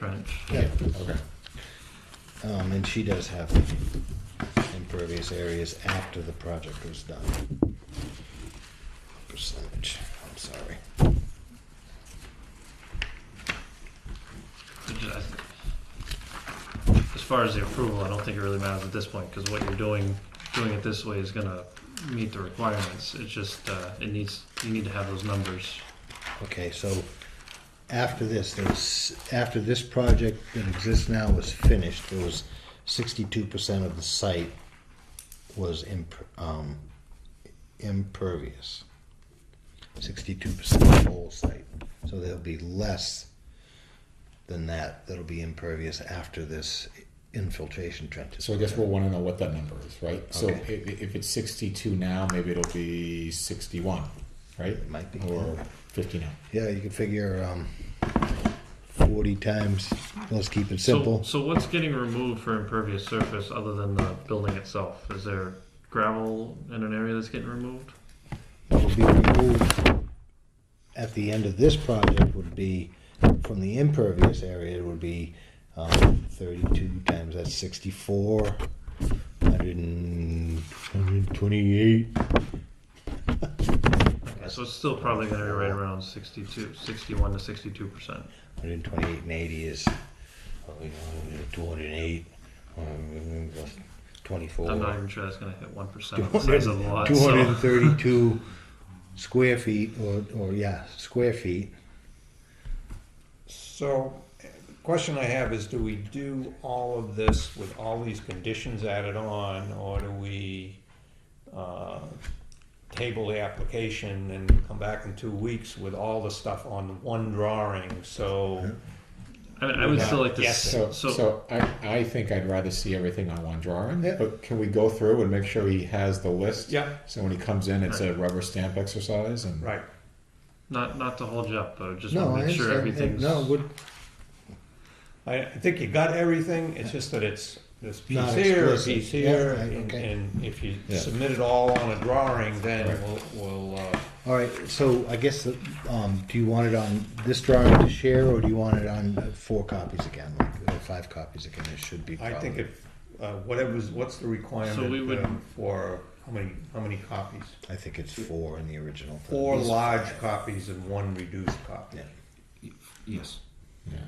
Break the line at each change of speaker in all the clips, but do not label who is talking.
trench.
Yeah, okay. Um, and she does have impervious areas after the project was done. Percentage, I'm sorry.
Which is- I th- As far as the approval, I don't think it really matters at this point, because what you're doing, doing it this way is gonna meet the requirements. It's just, uh, it needs, you need to have those numbers.
Okay, so after this, there was, after this project that exists now was finished, there was sixty-two percent of the site was imper- um, impervious. Sixty-two percent of the whole site, so there'll be less than that that'll be impervious after this infiltration trench. is
So I guess
put in.
we'll want to know what that number is, right? So
Okay.
if, if it's sixty-two now, maybe it'll be sixty-one, right?
It might be,
Or
yeah.
fifty-nine.
Yeah, you can figure, um, forty times, let's keep it
So-
simple.
So what's getting removed for impervious surface other than the building itself? Is there gravel in an area that's getting removed?
that would be removed at the end of this project would be, from the impervious area, it would be um, thirty-two times, that's sixty-four, hundred and, hundred and twenty-eight.
Okay, So it's still probably gonna be right around 62, 61 to sixty-two percent.
Hundred and twenty-eight and eighty is, two hundred and eight, twenty-four.
I'm not even sure that's gonna hit one percent of the size of the lot,
Two hundred
so.
and thirty-two square feet, or, or, yeah, square feet.
So, uh, the question I have is, do we do all of this with all these conditions added on, or do we uh, table the application and come back in two weeks with all the stuff on one drawing, so,
I mean, I would still like to,
Yes,
s-
So,
so,
so I, I think I'd rather see everything on one drawing,
Yeah.
but can we go through and make sure he has the list?
yeah,
So when he comes in, it's a rubber stamp exercise and.
right.
not, not to hold you up, but just
No,
wanna
I
make sure
understand,
everything's.
no, would,
I, I think you got everything, it's just that it's, this piece
Not
here, a
explicit.
piece
Yeah,
here,
right,
and
okay.
and if you
Yeah.
submit it all on a drawing, then
Right.
we'll, we'll, uh,
All right, so I guess, the, um, do you want it on this drawing to share, or do you want it on uh, four copies again, like, or five copies again, it should be
I
probably.
think if, uh, whatever's, what's the
we would-
requirement um, for, how many, how many copies?
I think it's four in the original. but
Four
at least-
large copies and one reduced copy.
Yeah,
Yes.
Yeah.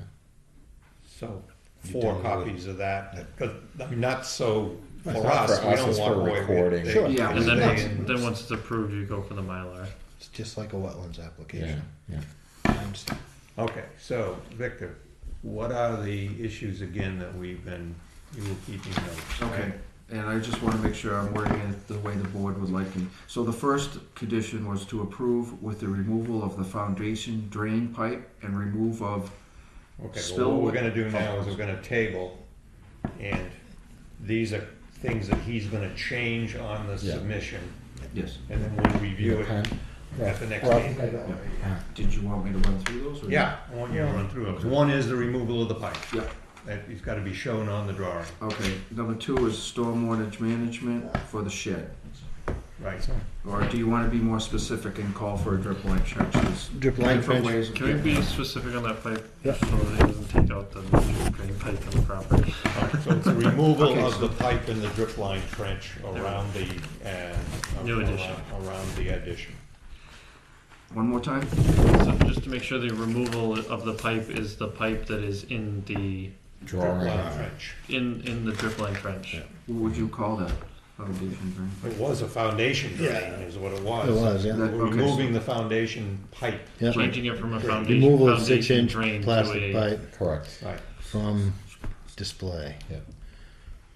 So
You
four
don't really-
copies of that, because, I mean, not so, for
Right, not
us,
for
we
us,
don't
it's
walk
for
away with.
recording.
they-
Sure.
Yeah.
And then
they-
once, then once it's approved, you go for the Mylar.
it's just like a wetlands
Yeah,
application.
yeah.
I understand.
Okay, so, Victor, what are the issues again that we've been, you were keeping notes? right?
Okay. And I just want to make sure I'm wording it the way the board would like me. So the first condition was to approve with the removal of the foundation drain pipe and remove of,
Okay, well,
Spill
what we're
with-
gonna do now is we're gonna table, and these are things that he's gonna change on the
Yeah.
submission,
yes.
and then we'll review it
Pen?
at the next
Well,
meeting.
Did you want me to run through those? or-
Yeah, I want you to run through those. One is the removal of the pipe.
Yeah.
That, it's gotta be shown on the drawing,
Okay. Number two is stormwater management for the shed.
right?
Or do you want to be more specific and call for a drip line trench? There's
Drip line
different
trench.
ways of
Can we
getting
be
it.
specific on that pipe?
Yeah.
So that it doesn't take out the major drain pipe on the property.
Alright, So it's the removal
Okay,
of the pipe and the drip line trench around the, uh.
New addition.
around- Around the addition.
One more time?
So just to make sure the removal of the pipe is the pipe that is in the,
Drip
Drawing.
line trench.
in, in the drip line trench.
Yeah.
What would you call that? Foundation drain?
It was a foundation drain,
Yeah.
is what it
It was, yeah.
That-
We're
okay, so-
removing the foundation pipe.
Yeah.
Changing it from a foundation,
Removal of
foundation
six-inch
drain to
plastic
a,
pipe
Correct.
Right,
from display,
Yeah.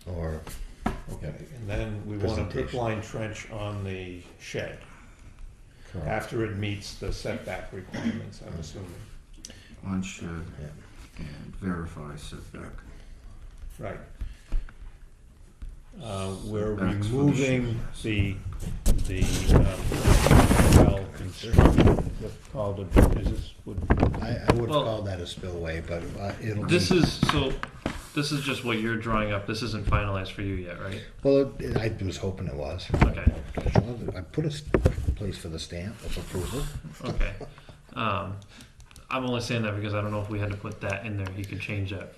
or,
okay. And then we want a drip
Presentation.
line trench on the shed
Correct.
after it meets the setback requirements, I'm assuming.
On shed
yeah.
and verify setback.
Right. Uh, We're
Setbacks for the
removing the, the, um, well, construction, that's called a, is this, would-
I, I would
Well-
call that a spillway, but uh, it'll be.
this is, so, this is just what you're drawing up, this isn't finalized for you yet, right?
Well, it- I was hoping it was.
Okay.
I put a s- place for the stamp of approval.
Okay. Um, I'm only saying that because I don't know if we had to put that in there, he could change that